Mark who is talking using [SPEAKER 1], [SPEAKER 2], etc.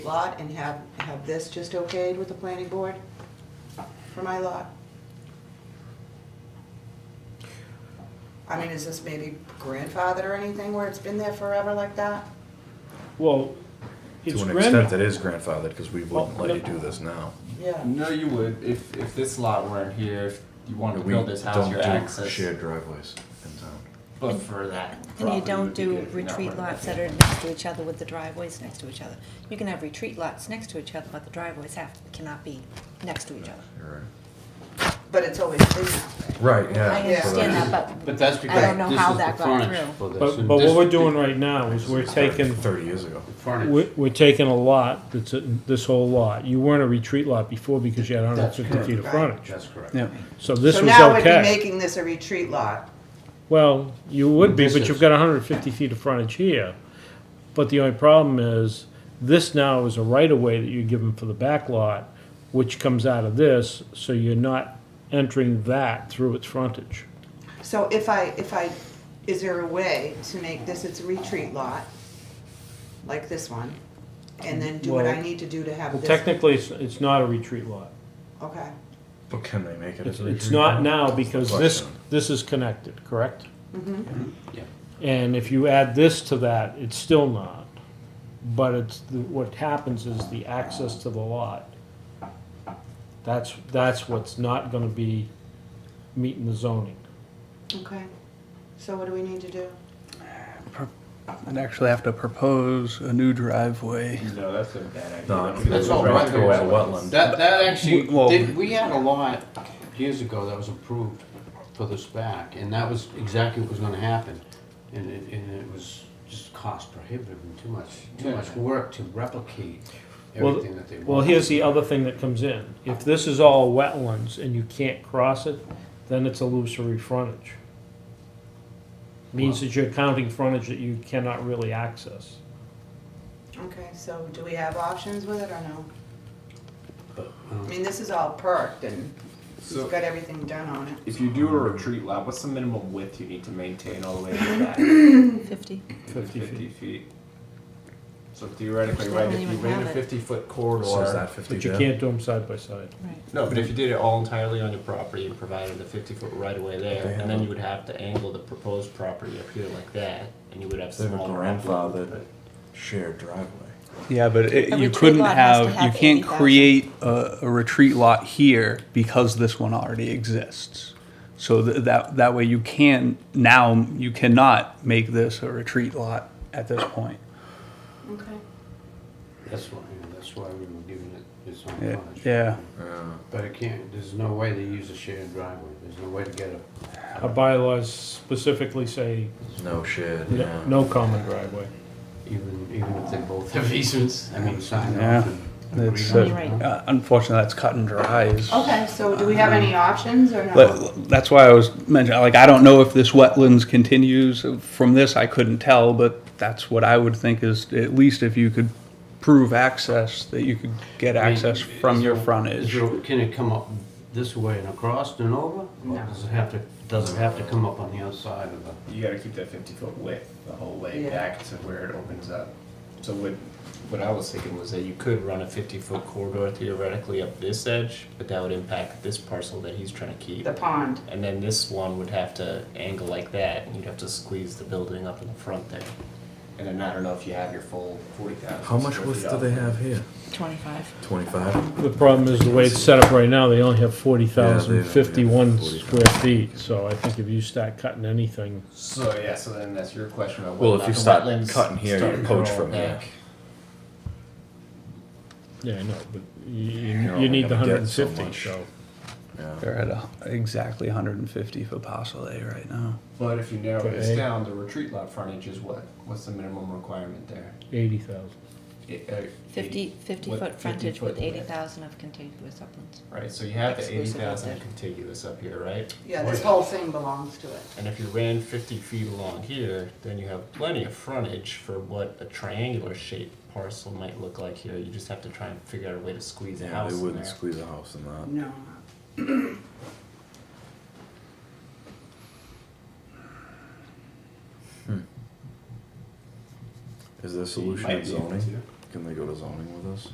[SPEAKER 1] lot and have, have this just okayed with the planning board for my lot? I mean, is this maybe grandfathered or anything where it's been there forever like that?
[SPEAKER 2] Well, it's
[SPEAKER 3] To an extent,
[SPEAKER 2] grandfathered.
[SPEAKER 3] it is grandfathered, because we wouldn't
[SPEAKER 2] Well,
[SPEAKER 3] let you
[SPEAKER 2] no.
[SPEAKER 3] do this now.
[SPEAKER 1] Yeah.
[SPEAKER 4] No, you would. If if this lot weren't here, if you wanted to
[SPEAKER 3] We
[SPEAKER 4] build this house,
[SPEAKER 3] don't
[SPEAKER 4] your
[SPEAKER 3] do
[SPEAKER 4] access.
[SPEAKER 3] Shared driveways in town.
[SPEAKER 4] But for that.
[SPEAKER 5] And you
[SPEAKER 4] property
[SPEAKER 5] don't
[SPEAKER 4] would be
[SPEAKER 5] do
[SPEAKER 4] good. You're not
[SPEAKER 5] retreat
[SPEAKER 4] putting
[SPEAKER 5] lots
[SPEAKER 4] it
[SPEAKER 5] that
[SPEAKER 4] in.
[SPEAKER 5] are next to each other with the driveways next to each other. You can have retreat lots next to each other, but the driveways have, cannot be next to each other.
[SPEAKER 3] You're
[SPEAKER 1] But it's always been that way.
[SPEAKER 3] right. Right, yeah.
[SPEAKER 5] I
[SPEAKER 3] so
[SPEAKER 5] understand
[SPEAKER 3] that's-
[SPEAKER 5] that,
[SPEAKER 6] But
[SPEAKER 5] but
[SPEAKER 6] that's because
[SPEAKER 5] don't know
[SPEAKER 6] this
[SPEAKER 5] how
[SPEAKER 6] is
[SPEAKER 5] that got
[SPEAKER 6] the frontage
[SPEAKER 5] through.
[SPEAKER 6] for this.
[SPEAKER 2] But,
[SPEAKER 6] And
[SPEAKER 2] but
[SPEAKER 6] this-
[SPEAKER 2] what we're doing right now is we're taking,
[SPEAKER 3] Thirty years ago.
[SPEAKER 6] the frontage-
[SPEAKER 2] we're, we're taking a lot, that's, a- this whole lot. You weren't a retreat lot before because you had hundred and fifty
[SPEAKER 6] That's
[SPEAKER 2] feet of frontage.
[SPEAKER 6] That's correct.
[SPEAKER 7] Yeah,
[SPEAKER 2] So this
[SPEAKER 1] So
[SPEAKER 2] was
[SPEAKER 1] now we'd be
[SPEAKER 2] okay.
[SPEAKER 1] making this a retreat lot.
[SPEAKER 2] Well, you would be,
[SPEAKER 6] This
[SPEAKER 2] but
[SPEAKER 6] is-
[SPEAKER 2] you've got hundred and fifty feet of frontage here. But the only problem is, this now is a right-of-way that you're given for the back lot, which comes out of this, so you're not entering that through its frontage.
[SPEAKER 1] So if I, if I, is there a way to make this its a retreat lot? Like this one? And then do what I
[SPEAKER 2] Well,
[SPEAKER 1] need to do to have
[SPEAKER 2] Well,
[SPEAKER 1] this?
[SPEAKER 2] technically, it's, it's not a retreat lot.
[SPEAKER 1] Okay.
[SPEAKER 3] But can they make it
[SPEAKER 2] It's,
[SPEAKER 3] as a
[SPEAKER 2] it's
[SPEAKER 3] retreat
[SPEAKER 2] not
[SPEAKER 3] home?
[SPEAKER 2] now because this,
[SPEAKER 3] Question.
[SPEAKER 2] this is connected, correct?
[SPEAKER 6] Yeah.
[SPEAKER 2] And if you add this to that, it's still not. But it's, the- what happens is the access to the lot. That's, that's what's not gonna be meeting the zoning.
[SPEAKER 1] Okay. So what do we need to do?
[SPEAKER 7] I'd actually have to propose a new driveway.
[SPEAKER 4] No, that's a bad idea.
[SPEAKER 3] No,
[SPEAKER 4] Don't do
[SPEAKER 6] That's
[SPEAKER 4] that.
[SPEAKER 6] all
[SPEAKER 3] right through
[SPEAKER 6] wetlands.
[SPEAKER 3] as a wetland.
[SPEAKER 6] That, that actually,
[SPEAKER 7] Well-
[SPEAKER 6] did- we had a lot years ago that was approved for the SPAC, and that was exactly what was gonna happen. And it, and it was just cost prohibitive and too much, too
[SPEAKER 4] Yeah.
[SPEAKER 6] much work to replicate
[SPEAKER 2] Well,
[SPEAKER 6] everything that they wanted.
[SPEAKER 2] Well, here's the other thing that comes in. If this is all wetlands and you can't cross it, then it's illusory frontage. Means that you're counting frontage that you cannot really access.
[SPEAKER 1] Okay, so do we have options with it or no?
[SPEAKER 6] But,
[SPEAKER 1] I
[SPEAKER 6] um,
[SPEAKER 1] mean, this is all perked and he's
[SPEAKER 4] So-
[SPEAKER 1] got everything done on it.
[SPEAKER 4] If you do a retreat lot, what's the minimum width you need to maintain all the way to that?
[SPEAKER 5] fifty,
[SPEAKER 4] Fifty feet. So theoretically,
[SPEAKER 5] They
[SPEAKER 4] right,
[SPEAKER 5] don't
[SPEAKER 4] if you
[SPEAKER 5] even
[SPEAKER 4] ran
[SPEAKER 5] have
[SPEAKER 4] a
[SPEAKER 5] it.
[SPEAKER 4] fifty-foot
[SPEAKER 3] So is
[SPEAKER 4] corridor.
[SPEAKER 3] that fifty
[SPEAKER 2] uh, But you
[SPEAKER 3] there?
[SPEAKER 2] can't do them side by side.
[SPEAKER 5] right.
[SPEAKER 4] No, but if you did it all entirely on your property and provided a fifty-foot right-of-way there,
[SPEAKER 3] They
[SPEAKER 4] and then
[SPEAKER 3] have-
[SPEAKER 4] you would have to angle the proposed property up here like that, and you would have
[SPEAKER 3] They have a
[SPEAKER 4] smaller.
[SPEAKER 3] grandfather.
[SPEAKER 4] upland,
[SPEAKER 3] Shared driveway.
[SPEAKER 7] Yeah, but it,
[SPEAKER 5] A
[SPEAKER 7] you
[SPEAKER 5] retreat
[SPEAKER 7] couldn't
[SPEAKER 5] lot has to
[SPEAKER 7] have, you
[SPEAKER 5] have
[SPEAKER 7] can't
[SPEAKER 5] 80,000.
[SPEAKER 7] create a, a retreat lot here because this one already exists. So th- that, that way you can, now you cannot make this a retreat lot at this point.
[SPEAKER 1] Okay.
[SPEAKER 6] That's why, yeah, that's why we were giving it its own
[SPEAKER 7] Yeah,
[SPEAKER 6] frontage.
[SPEAKER 7] yeah.
[SPEAKER 3] Yeah.
[SPEAKER 6] But it can't, there's no way to use a shared driveway, there's no way to get a,
[SPEAKER 2] Our bylaws specifically say
[SPEAKER 3] No shared,
[SPEAKER 2] no,
[SPEAKER 3] yeah.
[SPEAKER 2] no common driveway.
[SPEAKER 6] even, even if they both have easements, I mean, sign
[SPEAKER 7] Yeah.
[SPEAKER 6] off and agree
[SPEAKER 7] That's,
[SPEAKER 6] on
[SPEAKER 5] You're right.
[SPEAKER 6] it.
[SPEAKER 7] uh, unfortunately, that's cut and dry. is-
[SPEAKER 1] Okay, so do we have any options or no?
[SPEAKER 7] But that's why I was mentioning, like, I don't know if this wetlands continues. From this, I couldn't tell, but that's what I would think is, at least if you could prove access, that you could get
[SPEAKER 6] I mean,
[SPEAKER 7] access from
[SPEAKER 6] is
[SPEAKER 7] your
[SPEAKER 6] there- is
[SPEAKER 7] frontage.
[SPEAKER 6] there- Can it come up this way and across and over? Or
[SPEAKER 1] No.
[SPEAKER 6] Does it have to, does it have to come up on the other side of the?
[SPEAKER 4] You gotta keep that fifty foot width the whole way
[SPEAKER 1] Yeah.
[SPEAKER 4] back to where it opens up. So what, what I was thinking was that you could run a fifty foot corridor theoretically up this edge, but that would impact this parcel that he's trying to keep.
[SPEAKER 1] The pond.
[SPEAKER 4] And then this one would have to angle like that, and you'd have to squeeze the building up in the front there. And then I don't know if you have your full forty thousand.
[SPEAKER 3] How much width do they have here?
[SPEAKER 5] Twenty-five.
[SPEAKER 3] Twenty-five?
[SPEAKER 2] The problem is the way it's set up right now, they only have forty
[SPEAKER 3] Yeah,
[SPEAKER 2] thousand
[SPEAKER 3] they don't
[SPEAKER 2] fifty-one
[SPEAKER 3] have 40,000.
[SPEAKER 2] square feet, so I think if you start cutting anything,
[SPEAKER 4] So, yeah, so then that's your question about.
[SPEAKER 3] Well,
[SPEAKER 4] whether
[SPEAKER 3] if
[SPEAKER 4] or
[SPEAKER 3] you
[SPEAKER 4] not the
[SPEAKER 3] start
[SPEAKER 4] wetlands
[SPEAKER 3] cutting here,
[SPEAKER 4] start
[SPEAKER 3] you
[SPEAKER 4] to
[SPEAKER 3] poach
[SPEAKER 4] grow
[SPEAKER 3] from here.
[SPEAKER 4] back.
[SPEAKER 2] yeah, I know, but you,
[SPEAKER 3] You're
[SPEAKER 2] you
[SPEAKER 3] only
[SPEAKER 2] need the
[SPEAKER 3] gonna
[SPEAKER 2] hundred
[SPEAKER 3] get
[SPEAKER 2] and
[SPEAKER 3] so
[SPEAKER 2] fifty,
[SPEAKER 3] much.
[SPEAKER 2] so.
[SPEAKER 3] Yeah.
[SPEAKER 7] They're at a- exactly 150 for parcel A right now.
[SPEAKER 4] But if you narrow this
[SPEAKER 2] Okay.
[SPEAKER 4] down, the retreat lot frontage is what? What's the minimum requirement there?
[SPEAKER 2] Eighty thousand.
[SPEAKER 4] It- uh,
[SPEAKER 5] Fifty,
[SPEAKER 4] eighty- what-
[SPEAKER 5] fifty-foot frontage
[SPEAKER 4] 50-foot
[SPEAKER 5] with eighty
[SPEAKER 4] width.
[SPEAKER 5] thousand of contiguous uplands.
[SPEAKER 4] Right, so you have the eighty
[SPEAKER 5] Exclusive of
[SPEAKER 4] thousand
[SPEAKER 5] that.
[SPEAKER 4] contiguous up here, right?
[SPEAKER 1] Yeah, this whole thing belongs to it.
[SPEAKER 4] And if you ran fifty feet along here, then you have plenty of frontage for what a triangular shaped parcel might look like here. You just have to try and figure out a way to squeeze a
[SPEAKER 3] Yeah,
[SPEAKER 4] house
[SPEAKER 3] they
[SPEAKER 4] in
[SPEAKER 3] wouldn't
[SPEAKER 4] there.
[SPEAKER 3] squeeze a house in that.
[SPEAKER 1] No.
[SPEAKER 3] Is there a solution in zoning? Can they go to zoning with us?